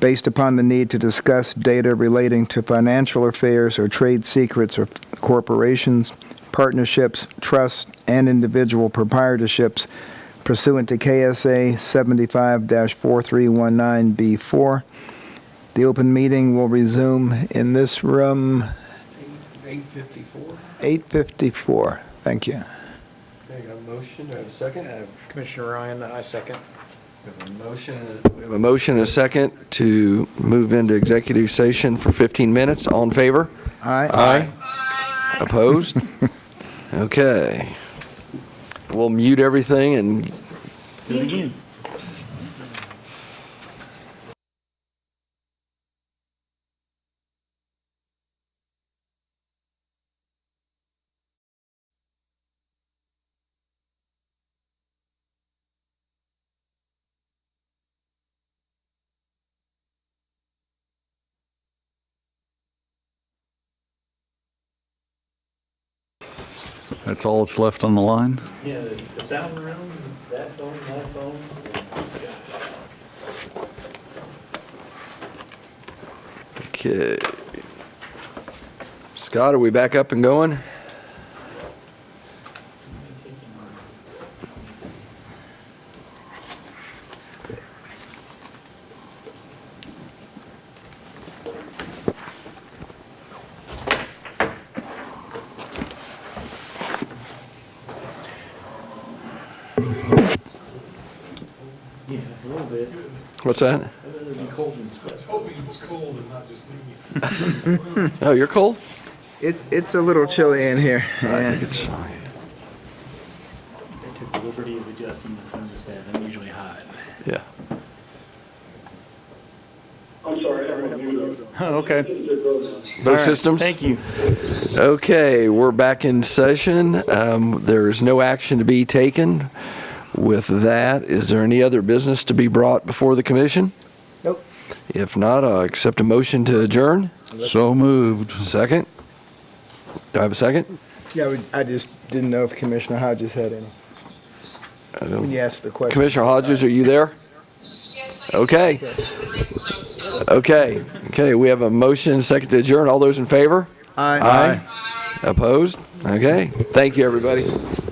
based upon the need to discuss data relating to financial affairs or trade secrets of corporations, partnerships, trusts, and individual proprietorships pursuant to KSA 75-4319B4. The open meeting will resume in this room, 854. 8:54. Thank you. Okay, got a motion, do I have a second? I Commissioner Ryan, I second. have a motion. We have a motion and a second to move into executive session for 15 minutes. All in favor? Aye. Aye. Opposed? Okay. We'll mute everything and That's all that's left on the line? Yeah, the- the sound room, that phone, that phone. Okay. Scott, are we back up and going? Yeah, a little bit. What's that? I'd rather be cold than sweat. Oh, you're cold? It- It's a little chilly in here. I Yeah. think it's fine. I took the liberty of adjusting the thermostat. I'm usually hot. Yeah. I'm sorry, I have you. Okay. Both systems? Thank you. Okay, we're back in session. Um, There is no action to be taken. With that, is there any other business to be brought before the commission? Nope. If not, I'll accept a motion to adjourn. So moved. Second? Do I have a second? Yeah, we- I just didn't know if Commissioner Hodges had any. When you asked the question. Commissioner Hodges, are you there? Okay. Okay, okay, we have a motion, second to adjourn. All those in favor? Aye. Opposed? Okay, thank you, everybody.